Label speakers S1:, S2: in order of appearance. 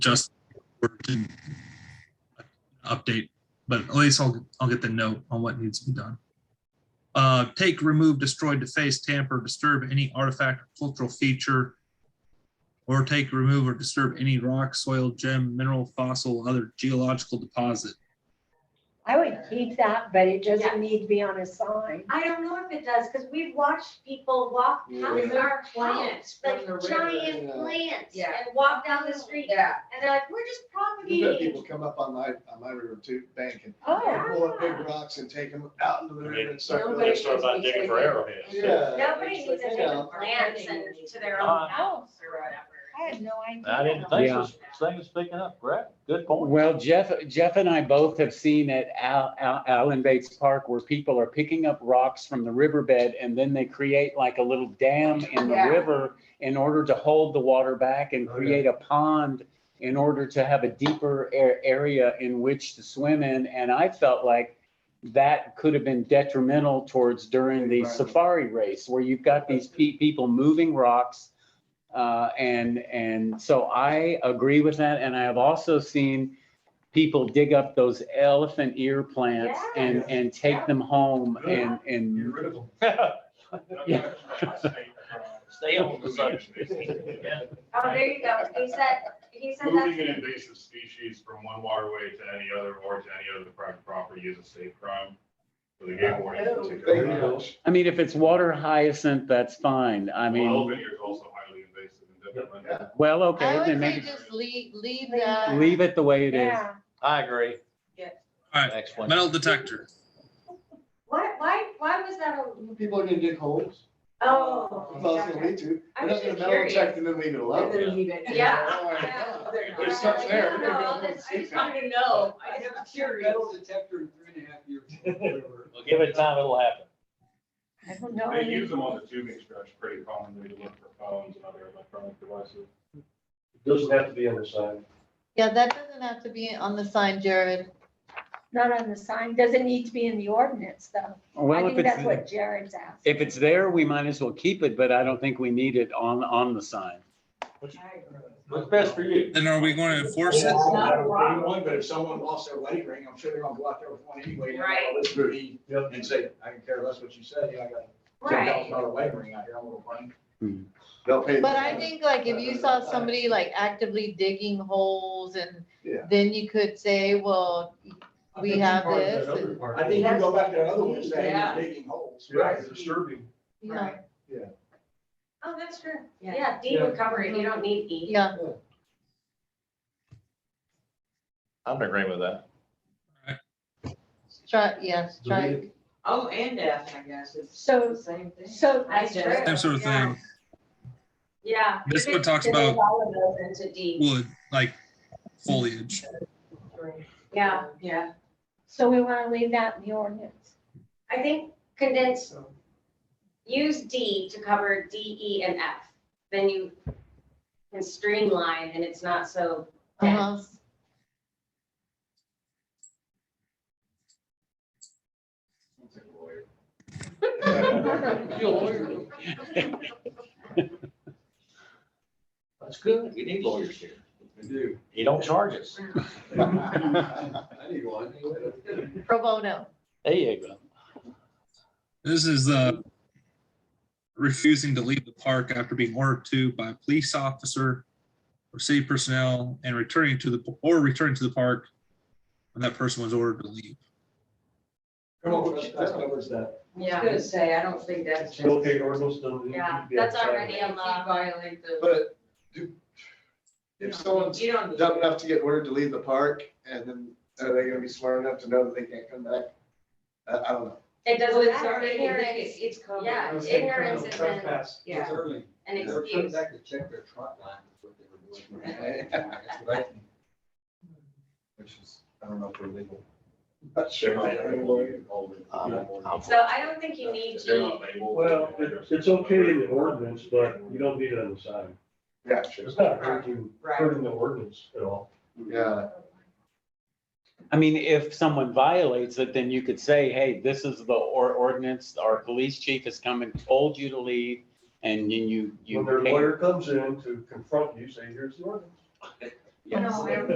S1: just to update, but at least I'll, I'll get the note on what needs to be done. Uh, take, remove, destroy, deface, tamper, disturb any artifact, or cultural feature, or take, remove, or disturb any rock, soil, gem, mineral, fossil, other geological deposit.
S2: I would keep that, but it
S3: Yeah.
S2: doesn't need to be on a sign.
S3: I don't know if it does, because we've watched people walk past
S4: Yeah.
S3: our
S5: plants
S3: plants,
S5: from
S3: like
S5: the river.
S3: giant
S4: Yeah.
S3: plants,
S5: Yeah.
S3: and walk down the street, and
S5: Yeah,
S3: they're like, we're just
S4: We've had
S3: propagating.
S4: people come up on my, on my river too, bank and
S2: Oh,
S4: pull up big rocks and take them out into the river and start.
S5: Nobody-
S4: building.
S6: They start about digging for arrowheads.
S4: Yeah.
S3: Nobody needs to
S4: It's like,
S3: take
S4: yeah.
S3: the plants and to their
S2: Uh,
S3: own house or
S2: I
S3: whatever.
S2: had no idea.
S7: I didn't think
S8: Yeah.
S7: this thing was picking up, Brett. Good point.
S8: Well, Jeff, Jeff and I both have seen at Al, Al, Allen Bates Park where people are picking up rocks from the riverbed and then they create like a little dam in the
S5: Yeah.
S8: river in order to hold the water back and
S4: Okay.
S8: create a pond in order to have a deeper a- area in which to swim in. And I felt like that could have been detrimental towards during the
S4: Environment.
S8: safari race where you've got these pe- people moving rocks uh, and, and so I agree with that. And I have also seen people dig up those elephant ear plants and,
S4: Yes.
S8: and take them home and,
S4: Get
S8: and,
S4: rid of them.
S8: Yeah.
S7: Stay on the subject.
S3: Oh, there you go, he said, he said
S6: Moving an
S3: that's,
S6: invasive species from one waterway to any other or to any other private property is a state crime. So they gave warning.
S9: Oh.
S4: Thank you.
S8: I mean, if it's water hyacinth, that's fine. I mean,
S6: Elephant ear is also highly invasive and detrimental.
S8: well,
S9: I
S8: okay,
S9: would say
S8: then maybe
S9: just leave, leave
S2: Leave
S9: that.
S8: leave it the way it is.
S2: Yeah,
S7: I agree.
S1: All right,
S7: Next one.
S1: metal detector.
S3: why, why, why was that a,
S4: People are gonna dig holes.
S3: oh.
S4: That's all it's gonna lead to.
S3: I'm
S4: They're not gonna
S3: just
S4: metal
S3: curious.
S4: check and then leave it
S5: and
S4: alone.
S5: then leave it.
S3: Yeah.
S4: Oh, my
S3: Yeah.
S4: God.
S5: They're-
S4: There's stuff there.
S3: No, no, no, this- I just wanted
S5: I know, I am curious.
S4: Metal detector in three and a half years.
S7: We'll Give it time, it'll happen.
S2: I don't know.
S6: They use them on the tubing stretch pretty commonly to look for phones and other electronic devices.
S4: Doesn't have to be on the side.
S9: Yeah, that doesn't have to be on the sign, Jared.
S2: Not on the sign, doesn't need to be in the ordinance though. I
S8: Well, if
S2: think that's
S8: it's,
S2: what Jared's asking.
S8: if it's there, we might as well keep it, but I don't think we need it on, on the sign.
S7: What's best for you?
S1: Then are we going to enforce it?
S4: It's not a problem, But if someone lost their wedding ring, I'm sure they're gonna go out there with one anyway. and
S3: Right.
S4: all this booty, And say, I can care less what you said, you know, I got ten
S3: Right.
S4: thousand dollar wedding ring out here, I'm gonna find.
S8: Hmm.
S4: They'll pay. the-
S9: But I think like if you saw somebody like actively digging holes and
S4: Yeah.
S9: then you could say, well, we have this. and,
S4: I think you go back to another one saying
S5: Yeah.
S4: you're digging holes.
S5: Right.
S4: It's Disturbing.
S9: you know,
S3: Oh, that's true,
S5: Yeah.
S3: yeah, D
S4: Yeah.
S3: recovery, you don't need E.
S9: Yeah,
S7: I'm agreeing with that.
S9: try, yes, try.
S5: Oh, and F, I guess, it's
S2: So-
S5: the same thing.
S2: So
S3: That's true.
S1: Same sort of thing.
S3: Yeah.
S1: This one talks about
S3: All of those into D,
S1: wood, like foliage.
S3: yeah,
S5: Yeah.
S2: So we want to leave that in the ordinance.
S3: I think condense use D to cover D, E, and F. Then you can streamline and it's not so dense.
S9: uh-huh.
S7: That's good. We need lawyers here.
S4: I do.
S7: You don't charge us.
S4: I need one.
S9: Pro bono.
S7: There you go.
S1: This is uh, refusing to leave the park after being ordered to by a police officer or city personnel and returning to the, or returning to the park when that person was ordered to leave.
S4: Come on, that covers that.
S5: I was
S3: Yeah,
S5: gonna say, I don't think that's. just-
S3: yeah, that's already
S5: If
S3: a
S5: you
S3: law.
S5: Violate the.
S4: But do, if someone's
S5: You don't.
S4: dumb enough to get ordered to leave the park, and then are they gonna be smart enough to know that they can't come back? I, I don't know.
S3: It
S5: Well,
S3: doesn't
S5: it's
S3: matter.
S5: already,
S3: Ignorance
S5: it's, it's covered.
S3: Yeah, ignorance is an,
S5: Yeah.
S4: early.
S3: an excuse.
S4: to check their trot line, what they were doing. Which is, I don't know if we're legal. Not sure.
S8: Um,
S3: So I don't think you need
S6: They're
S3: to,
S6: not labeled.
S10: Well, it- it's okay in the ordinance, but you don't need it on the sign.
S4: Yeah, sure.
S10: It's not hurting,
S5: Right.
S10: hurting the ordinance at all.
S4: Yeah.
S8: I mean, if someone violates it, then you could say, hey, this is the or- ordinance, our police chief has come and told you to leave, and then you, you.
S10: When their
S8: can't-
S10: lawyer comes in to confront you, say, here's the ordinance.
S11: Yes.
S9: No, I don't